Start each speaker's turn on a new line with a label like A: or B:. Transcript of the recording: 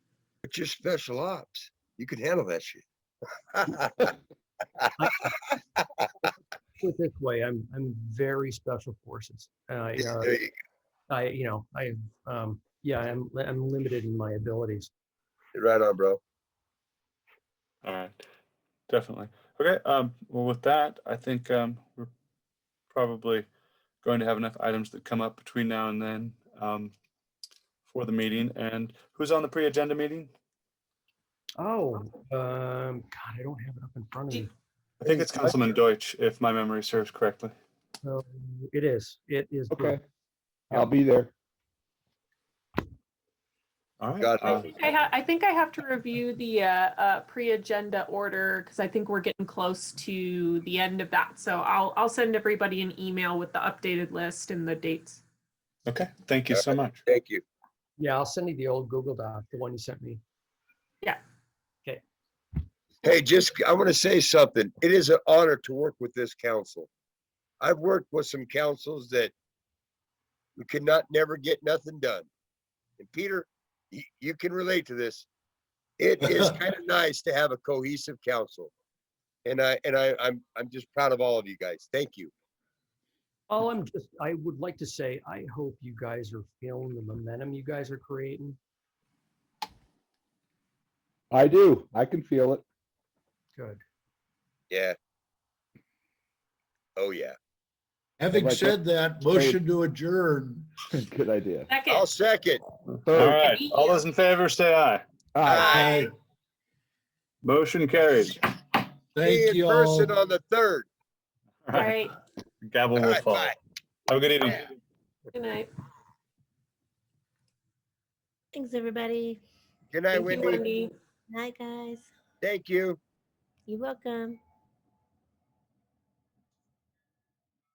A: But you're special ops. You could handle that shit.
B: put it this way, I'm I'm very special forces. I
A: Yeah,
B: uh,
A: there you
B: I you know I um yeah I'm li- I'm limited in my abilities.
A: go. Right on, bro.
C: All right, definitely. Okay. Um, well, with that, I think um, we're probably going to have enough items that come up between now and then um, for the meeting. And who's on the pre-agenda meeting?
B: Oh um God, I don't have it up in front of me.
C: I think it's Councilman Deutsch, if my memory serves correctly.
B: So it is. It is. good.
D: Okay. I'll be there.
C: All right.
A: Got it.
C: uh,
E: I think I ha- I think I have to review the uh, uh, pre-agenda order because I think we're getting close to the end of that. So I'll, I'll send everybody an email with the updated list and the dates.
C: okay. Thank you so much.
A: Thank you.
B: Yeah, I'll send you the old Google Doc, the one you sent me.
A: Hey, just, I want to say something. It is an honor to work with this council. I've worked with some councils that we could not never get nothing done. And Peter, you, you can relate to this. It is kind of nice to have a cohesive council. And I, and I, I'm, I'm just proud of all of you guys. Thank you.
B: All I'm just I would like to say I hope you guys are feeling the momentum you guys are creating.
D: I do. I can feel it.
B: Good.
A: Yeah. Oh, yeah.
F: Having
D: Right,
F: said that, motion to adjourn.
D: Good idea.
A: I'll
E: Second,
A: second.
C: All
D: Third.
C: right. All those in favor, say aye.
D: Aye.
E: Aye.
C: Motion carried.
A: See
F: Thank
A: you
F: you
A: in
F: all.
A: person on the third.
C: All right.
E: right,
C: Gavel
A: All
C: will
A: right,
C: fall.
A: bye.
C: Have a good evening.
A: Yeah.
E: good night.
G: Thanks, everybody.
A: Good night,
E: Thank you,
A: Wendy.
E: Wendy.
G: Night, guys.
A: Thank you.
G: You're welcome.